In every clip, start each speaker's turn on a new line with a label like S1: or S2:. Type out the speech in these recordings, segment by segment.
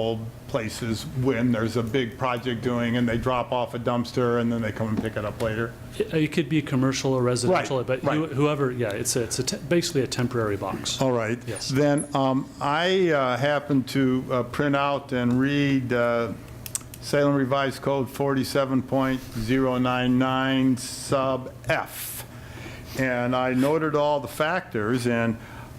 S1: old places when there's a big project doing and they drop off a dumpster and then they come and pick it up later.
S2: It Uh, it could be commercial or residential, but
S1: right.
S2: you- whoever, yeah, it's, a- it's a te- basically a temporary box.
S1: All right.
S2: Yes.
S1: Then um, I uh, happened to uh, print out and read uh, Salem Revised Code 47.099 sub F. And I noted all the factors, and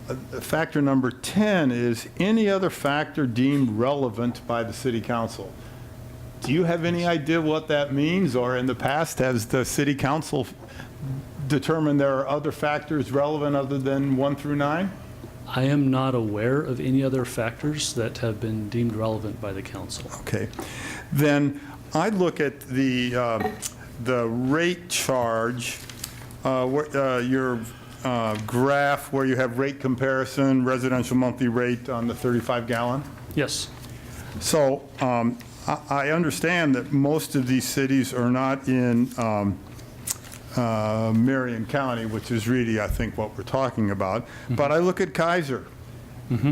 S1: uh, factor number 10 is any other factor deemed relevant by the city council. Do you have any idea what that means, or in the past, has the city council determined there are other factors relevant other than 1 through 9?
S2: I am not aware of any other factors that have been deemed relevant by the council.
S1: Okay. Then I look at the, uh, the rate charge, uh, where- uh, your uh, graph where you have rate comparison, residential monthly rate on the 35 gallon.
S2: Yes,
S1: So um, I I understand that most of these cities are not in um, uh, Marion County, which is really, I think, what we're talking about. But I look at Kaiser.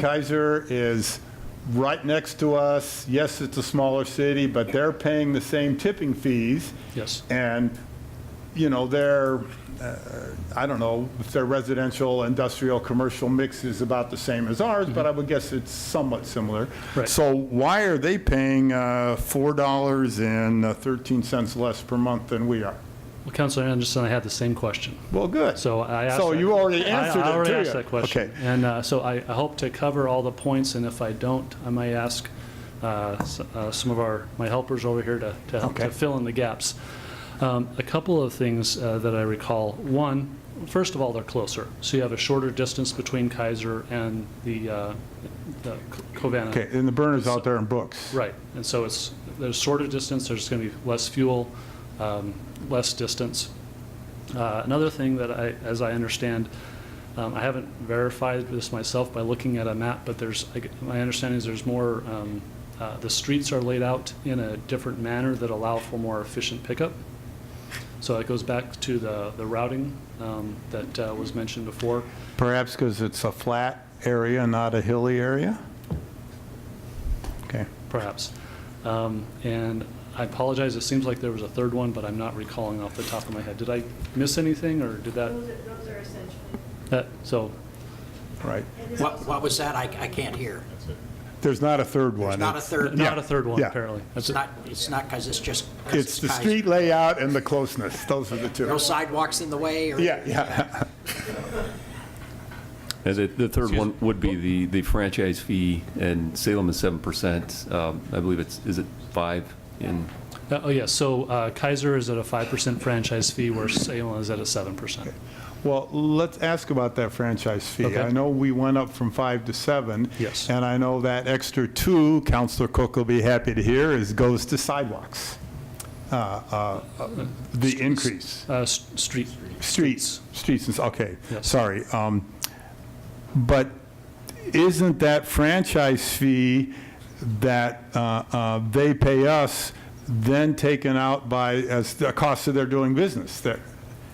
S1: Kaiser is right next to us. Yes, it's a smaller city, but they're paying the same tipping fees.
S2: yes.
S1: And, you know, their, uh, I don't know, if their residential, industrial, commercial mix is about the same as ours, but I would guess it's somewhat similar.
S2: Mm-hmm. Right.
S1: So why are they paying uh, $4.13 less per month than we are?
S2: Well, Councilor Anderson, I had the same question.
S1: Well, good.
S2: So I asked.
S1: So
S2: that-
S1: you already
S2: I-
S1: answered it,
S2: I already
S1: too.
S2: asked that question.
S1: Okay.
S2: And uh, so I I hope to cover all the points, and if I don't, I may ask uh, s- uh, some of our, my helpers over here to, to help-
S1: Okay.
S2: to fill in the gaps. Um, A couple of things uh, that I recall. One, first of all, they're closer. So you have a shorter distance between Kaiser and the uh, the Co- Covanta.
S1: Okay, and the burner's out there in Brooks.
S2: Right, and so it's, there's shorter distance, there's going to be less fuel, um, less distance. Uh, Another thing that I, as I understand, um, I haven't verified this myself by looking at a map, but there's, I g- my understanding is there's more, um, uh, the streets are laid out in a different manner that allow for more efficient pickup. So that goes back to the the routing um, that uh, was mentioned before.
S1: Perhaps because it's a flat area, not a hilly area? Okay.
S2: perhaps. Um, And I apologize, it seems like there was a third one, but I'm not recalling off the top of my head. Did I miss anything, or did that,
S3: Those are, those are essential.
S2: that, so,
S1: Right.
S3: And then
S4: What,
S3: also,
S4: what was that? I, I can't hear.
S1: There's not a third one.
S4: It's not a third,
S2: not a third one,
S1: Yeah.
S2: apparently. That's
S4: it's
S2: it.
S4: not, it's not because it's just. 'cause
S1: It's the
S4: Kaiser.
S1: street layout and the closeness. Those are the two.
S4: No sidewalks in the way or?
S1: Yeah, yeah.
S5: And the, the third one would be the, the franchise fee, and Salem is seven percent. Um, I believe it's, is it five in,
S2: Uh, Oh, yeah, so uh, Kaiser is at a 5% franchise fee, where Salem is at a 7%.
S1: Well, let's ask about that franchise fee.
S2: Okay.
S1: I know we went up from five to seven.
S2: Yes.
S1: And I know that extra two, Counselor Cook will be happy to hear, is, goes to sidewalks. Uh, uh, uh, The increase.
S2: Uh, s- Street,
S1: Streets, streets, and s- okay,
S2: Yes.
S1: sorry. um, But isn't that franchise fee that uh, uh, they pay us then taken out by, as the cost of their doing business? that-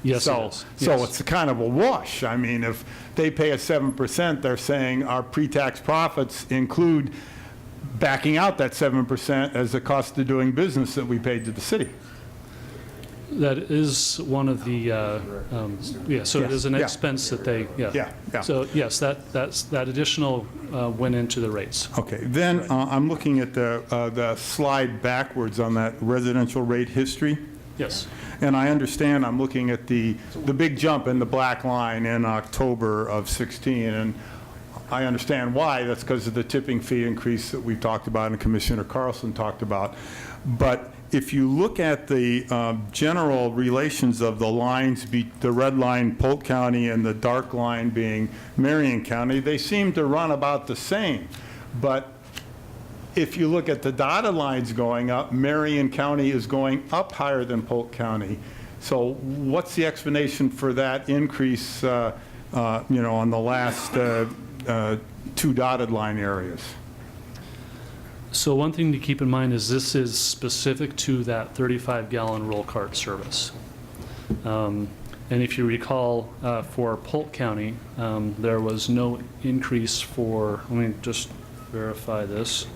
S2: Yes, it
S1: So-
S2: is.
S1: So
S2: Yes.
S1: it's kind of a wash. I mean, if they pay us 7%, they're saying our pre-tax profits include backing out that 7% as the cost of doing business that we paid to the city.
S2: that is one of the, uh, um, yeah, so it is an
S1: Yeah.
S2: expense that they, yeah.
S1: Yeah, yeah.
S2: So, yes, that, that's, that additional uh, went into the rates.
S1: Okay, then uh, I'm looking at the, uh, the slide backwards on that residential rate history,
S2: Yes,
S1: and I understand I'm looking at the, the big jump in the black line in October of 16, and I understand why, that's because of the tipping fee increase that we talked about and Commissioner Carlson talked about. But if you look at the um, general relations of the lines, be- the red line Polk County and the dark line being Marion County, they seem to run about the same. But if you look at the dotted lines going up, Marion County is going up higher than Polk County. So what's the explanation for that increase, uh, uh, you know, on the last uh, uh, two dotted line areas?
S2: So one thing to keep in mind is this is specific to that 35-gallon roll cart service. Um, And if you recall, uh, for Polk County, um, there was no increase for, let me just verify this.